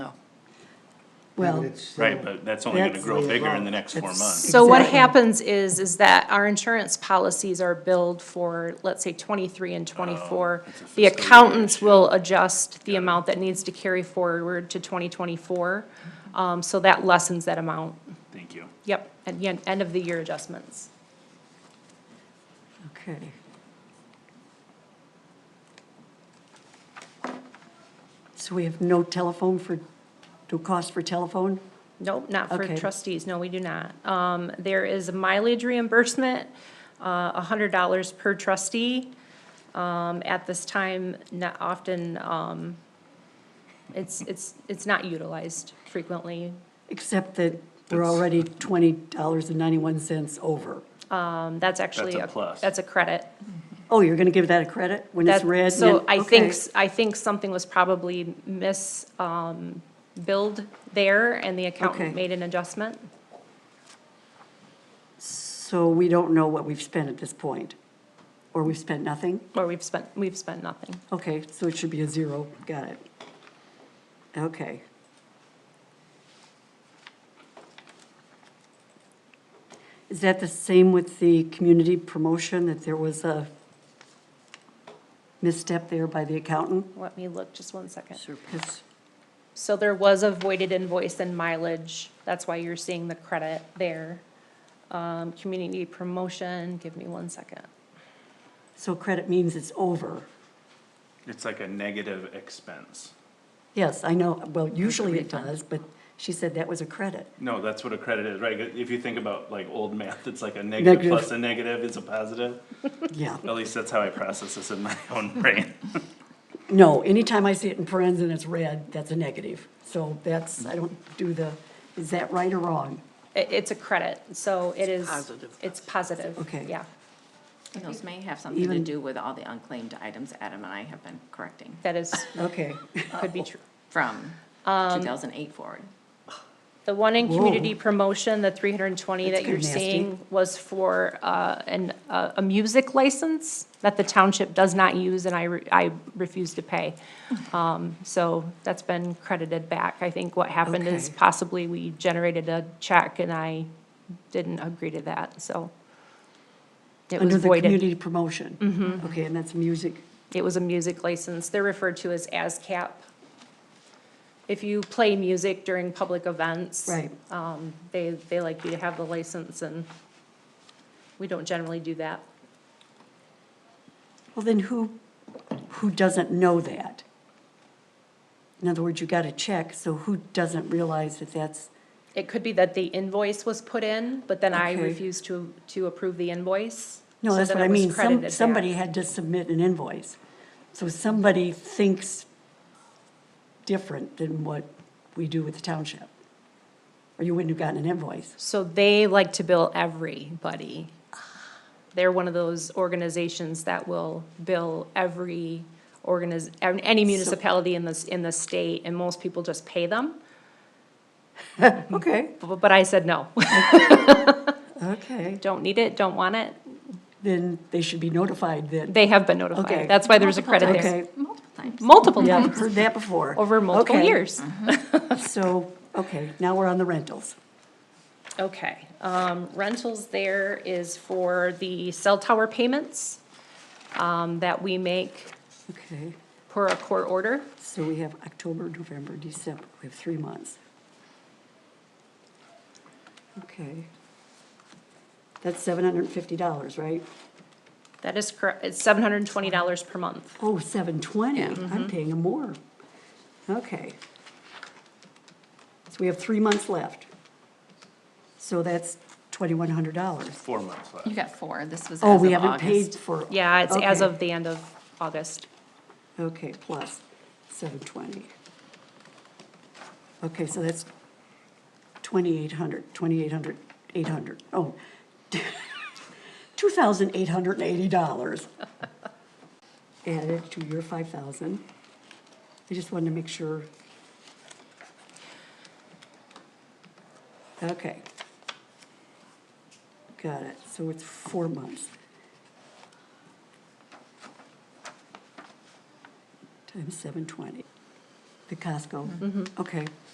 Well, it's still- Right, but that's only gonna That's grow the bigger in amount. the next four It's- months. So what Exactly. happens is, is that our insurance policies are billed for, let's say, twenty-three and twenty-four. it's Oh, a fiscal The year accountants issue. will adjust the amount that needs to carry forward to twenty twenty-four. Um, so that lessens that amount. Thank you. Yep, at the end, end of the year adjustments. okay. So we have no telephone for, no cost for telephone? Nope, not for Okay. trustees, no, we do not. Um, there is a mileage reimbursement, uh, hundred dollars per trustee. Um, at this time, not often, um, it's, it's, it's not utilized frequently. Except that we're already twenty dollars and ninety-one cents over. Um, that's actually. That's a plus. That's a credit. Oh, you're gonna give that a credit when it's That- red? and So then- I think, okay. s- I think something was probably mis, um, billed there and the Okay. accountant made an adjustment. So we don't know what we've spent at this point? Or we've spent nothing? Or we've spent, we've spent nothing. Okay, so it should be a zero, got it. Okay. Is that the same with the community promotion, that there was a misstep there by the accountant? Let me look just one second. Surplus. So there was a voided invoice and mileage, that's why you're seeing the credit there. Um, community promotion, give me one second. So credit means it's over. It's like a negative expense. Yes, I know, well, usually it does, but she said that was a credit. No, that's what a credit is, right? If you think about like old math, it's like a negative Negative. plus a negative is a positive. Yeah. At least that's how I process this in my own brain. No, anytime I see it in parentheses and it's red, that's a negative. So that's, I don't do the, is that right or wrong? I- it's a credit, so it is. positive. It's positive. Okay. Yeah, And Those may have something to Even- do with all the unclaimed items Adam and I have been correcting that is, Okay. could be true. from two Um, thousand eight forward. The one in Whoa. community promotion, the three hundred and twenty That's that you're kinda nasty. seeing was for, uh, an, uh, a music license that the township does not use and I, re- I refuse to pay. Um, so that's been credited back. I think what happened is Okay. possibly we generated a check and I didn't agree to that, so. It was Under the voided. community promotion? Mm-hmm. Okay, and that's music. It was a music license. They're referred to as ASCAP. If you play music during public events. Right. Um, they, they like you to have the license and we don't generally do that. Well, then who, who doesn't know that? In other words, you got a check, so who doesn't realize that that's, It could be that the invoice was put in, but then I Okay. refused to, to approve the invoice. no, so that's then what I it was mean. credited Some, back. somebody had to submit an invoice. So somebody thinks different than what we do with the township. Or you wouldn't have gotten an invoice. So they like to bill everybody. They're one of those organizations that will bill every organiz, any municipality in this, in the state, and most people just pay them. Okay, But but I said, no, okay. don't need it, don't want it. Then they should be notified that, They have been Okay. notified. That's why there's a credit there. okay, Multiple times. Multiple yeah, I've times, heard that before. over multiple Okay, years. So, okay, now we're on the rentals. Okay, um, rentals there is for the cell tower payments, um, that we make Okay, per a court order. so we have October, November, December, we have three months. Okay. That's seven hundred and fifty dollars, right? That is correct, it's seven hundred and twenty dollars per month. Oh, seven twenty, I'm paying them more. Okay. So we have three months left. So that's twenty-one hundred dollars. Four months left. You got four, this was as of Oh, August. we haven't paid for. Yeah, it's as Okay. of the end of August. Okay, plus seven twenty. Okay, so that's twenty-eight hundred, twenty-eight hundred, eight hundred, oh. Two thousand eight hundred and eighty dollars. Added to your five thousand. I just wanted to make sure. Okay. Got it, so it's four months. Times seven twenty. The Costco? Okay.